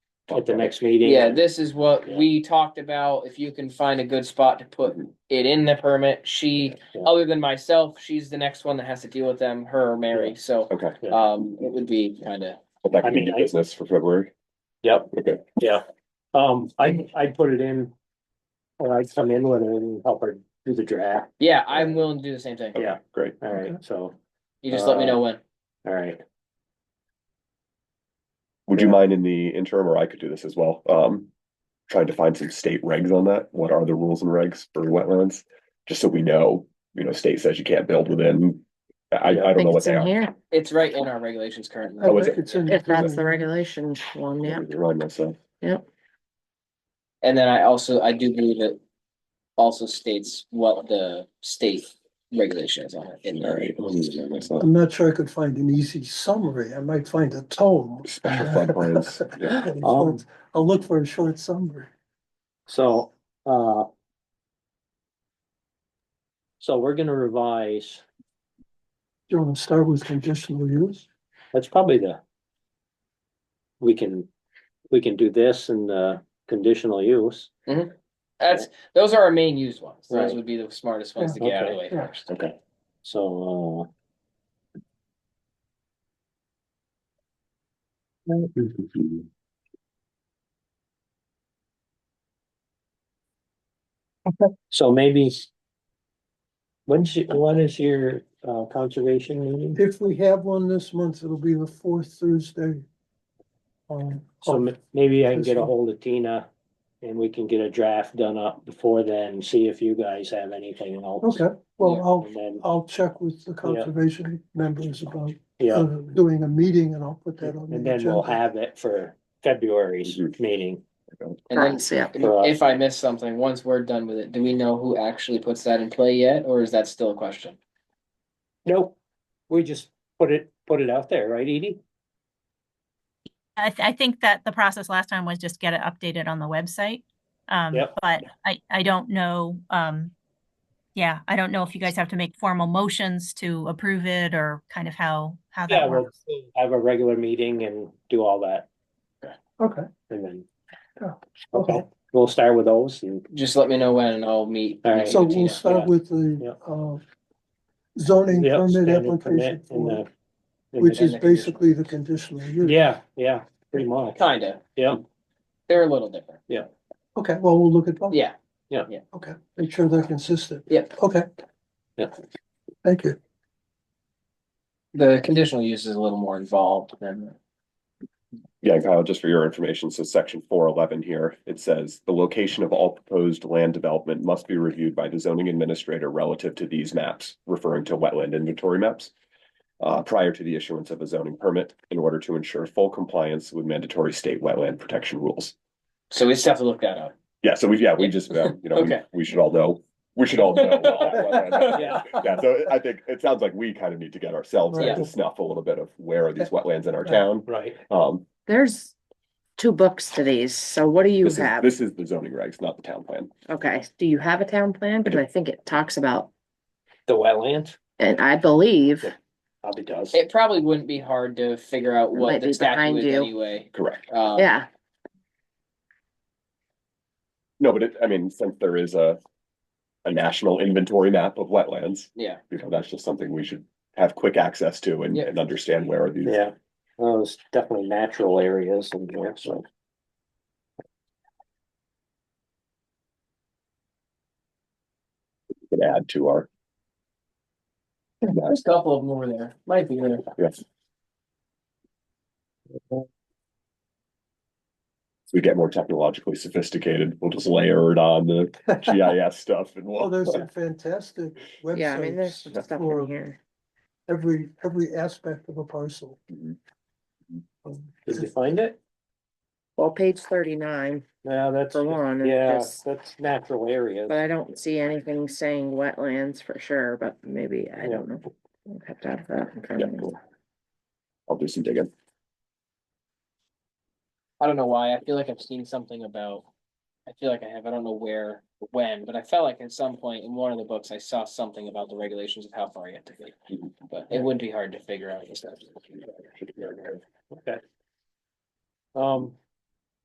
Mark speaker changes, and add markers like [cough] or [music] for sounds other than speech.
Speaker 1: at the next meeting.
Speaker 2: Yeah, this is what
Speaker 1: Yeah.
Speaker 2: we talked about. If you can find a good spot to put it in the permit, she,
Speaker 1: Yeah.
Speaker 2: other than myself, she's the next one that has to deal with them, her or Mary, so.
Speaker 3: Okay,
Speaker 1: Yeah.
Speaker 2: Um, it would be kinda,
Speaker 3: but that
Speaker 1: I
Speaker 3: could be
Speaker 1: mean,
Speaker 3: new
Speaker 1: I-
Speaker 3: business for February.
Speaker 1: Yep.
Speaker 3: Okay,
Speaker 1: Yeah, um, I, I put it in. Or I'd come in with her and help her do the draft,
Speaker 2: yeah, I'm willing to do the same thing.
Speaker 1: Yeah.
Speaker 3: okay, great.
Speaker 1: all right, so,
Speaker 2: You just let me know when.
Speaker 1: all right,
Speaker 3: Would you
Speaker 1: Yeah.
Speaker 3: mind in the interim, or I could do this as well, um, trying to find some state regs on that? What are the rules and regs for wetlands? Just so we know, you know, state says you can't build within, I, I don't know
Speaker 4: think
Speaker 3: what
Speaker 4: it's
Speaker 3: they
Speaker 4: in
Speaker 3: are.
Speaker 4: here,
Speaker 2: It's right in our regulations currently.
Speaker 3: Oh, is it?
Speaker 5: It's in-
Speaker 4: if that's the regulation one, yeah.
Speaker 3: Remind myself.
Speaker 2: And then I also, I do believe it also states what the state regulation is on it in
Speaker 3: All right,
Speaker 2: there.
Speaker 3: let me just
Speaker 1: [laughs]
Speaker 3: remind myself.
Speaker 5: I'm not sure I could find an easy summary. I might find a tome.
Speaker 3: Special flood
Speaker 5: [laughs]
Speaker 3: plans,
Speaker 1: [laughs]
Speaker 3: yeah.
Speaker 5: I'll look for a short summary.
Speaker 1: so, uh. So we're gonna revise,
Speaker 5: Do you want to start with conditional use?
Speaker 1: that's probably the. We can, we can do this and the conditional use.
Speaker 2: That's, those are our main used ones. Those
Speaker 1: Right.
Speaker 2: would be the smartest ones to get out of the way
Speaker 5: Yeah, okay,
Speaker 2: first.
Speaker 3: Okay,
Speaker 1: So, uh, Mm-hmm. uh, so maybe. When's, your- when is your, uh, conservation meeting?
Speaker 5: If we have one this month, it'll be the fourth Thursday. Um,
Speaker 1: So m- maybe I can get a hold of Tina and we can get a draft done up before then, see if you guys have anything else.
Speaker 5: Okay, well, I'll,
Speaker 1: And then,
Speaker 5: I'll check with the conservation members about uh,
Speaker 1: yeah,
Speaker 5: doing a meeting and I'll put that on.
Speaker 1: and
Speaker 5: the
Speaker 1: then we'll
Speaker 5: agenda.
Speaker 1: have it for February's
Speaker 3: Mhm.
Speaker 1: meeting.
Speaker 2: And then
Speaker 4: Nice, yeah.
Speaker 1: Right.
Speaker 2: If I miss something, once we're done with it, do we know who actually puts that in play yet, or is that still a question?
Speaker 1: Nope, we just put it, put it out there, right, Edie?
Speaker 6: I, th- I think that the process last time was just get it updated on the website. Um,
Speaker 1: Yep.
Speaker 6: but I, I don't know, um, yeah, I don't know if you guys have to make formal motions to approve it or kind of how, how
Speaker 1: Yeah,
Speaker 6: that
Speaker 1: we'll
Speaker 6: works.
Speaker 1: have a regular meeting and do all that
Speaker 5: Okay,
Speaker 1: and then.
Speaker 5: Yeah.
Speaker 1: Okay, we'll start with those and,
Speaker 2: Just let me know when and I'll meet.
Speaker 1: All right.
Speaker 5: so
Speaker 2: with
Speaker 5: we'll
Speaker 2: Tina.
Speaker 5: start with
Speaker 1: Yeah.
Speaker 5: the, uh, zoning
Speaker 1: yeah,
Speaker 5: permit
Speaker 1: standing
Speaker 5: application
Speaker 1: permit and uh,
Speaker 5: form,
Speaker 1: the. and
Speaker 5: which
Speaker 1: the-
Speaker 5: is basically the conditional use.
Speaker 1: Yeah, yeah, pretty much,
Speaker 2: Kinda,
Speaker 1: yeah,
Speaker 2: they're a little different.
Speaker 5: Okay, well, we'll look at both.
Speaker 2: Yeah,
Speaker 5: Okay, make sure they're consistent.
Speaker 2: Yep.
Speaker 5: Okay.
Speaker 1: Yeah.
Speaker 5: Thank you.
Speaker 2: the conditional use is a little more involved than,
Speaker 3: Yeah, Kyle, just for your information, so section four eleven here, it says, the location of all proposed land development must be reviewed by the zoning administrator relative to these maps, referring to wetland inventory maps. Uh, prior to the issuance of a zoning permit in order to ensure full compliance with mandatory state wetland protection rules.
Speaker 2: so we just have to look that up.
Speaker 3: Yeah, so we've, yeah, we just, um, you know, we,
Speaker 2: Okay.
Speaker 3: we should all know, we should all know.
Speaker 2: [laughs]
Speaker 3: what wetland-
Speaker 1: yeah,
Speaker 3: Yeah, so I think it sounds like we kind of need to get ourselves
Speaker 2: Right.
Speaker 3: to snuff a little bit of where are these wetlands in our
Speaker 5: Right.
Speaker 3: town?
Speaker 1: right,
Speaker 3: Um,
Speaker 4: There's two books to these, so what do you
Speaker 3: this is,
Speaker 4: have?
Speaker 3: this is the zoning regs, not the town plan.
Speaker 4: Okay, do you have a town plan? Because I think it talks about,
Speaker 1: the wetlands,
Speaker 4: and I believe,
Speaker 1: Yeah. probably does.
Speaker 2: It probably wouldn't be hard to figure out
Speaker 4: might
Speaker 2: what
Speaker 4: be
Speaker 2: the statute
Speaker 4: behind
Speaker 2: is
Speaker 4: you.
Speaker 2: anyway.
Speaker 3: Correct.
Speaker 2: Um,
Speaker 4: yeah,
Speaker 3: No, but it, I mean, since there is a, a national inventory map of wetlands,
Speaker 2: Yeah,
Speaker 3: you know, that's just something we should have quick access to and,
Speaker 2: Yeah.
Speaker 3: and understand where are these.
Speaker 1: Yeah, well, there's definitely natural areas and there, so.
Speaker 3: we Can add to our.
Speaker 2: there's a couple of them over there, might be there.
Speaker 3: Yes. As we get more technologically sophisticated, we'll just layer it on the GIS stuff and
Speaker 5: Well,
Speaker 3: we'll. [laughs]
Speaker 5: Oh, there's some fantastic
Speaker 4: yeah, I mean, there's
Speaker 5: websites
Speaker 4: some stuff in
Speaker 5: for
Speaker 4: here.
Speaker 5: every, every aspect of a parcel.
Speaker 3: Mhm.
Speaker 5: Um,
Speaker 1: Did you find it?
Speaker 4: Well, page thirty-nine,
Speaker 1: Yeah, that's,
Speaker 4: For one, it
Speaker 1: yeah,
Speaker 4: just-
Speaker 1: that's natural areas.
Speaker 4: but I don't see anything saying wetlands for sure, but maybe, I don't know. I'd Have to have that. in front of me.
Speaker 3: I'll do some digging.
Speaker 2: I don't know why, I feel like I've seen something about, I feel like I have, I don't know where, when, but I felt like at some point in one of the books, I saw something about the regulations of how far you have to go. But it wouldn't be hard to figure out.
Speaker 1: Okay. Um,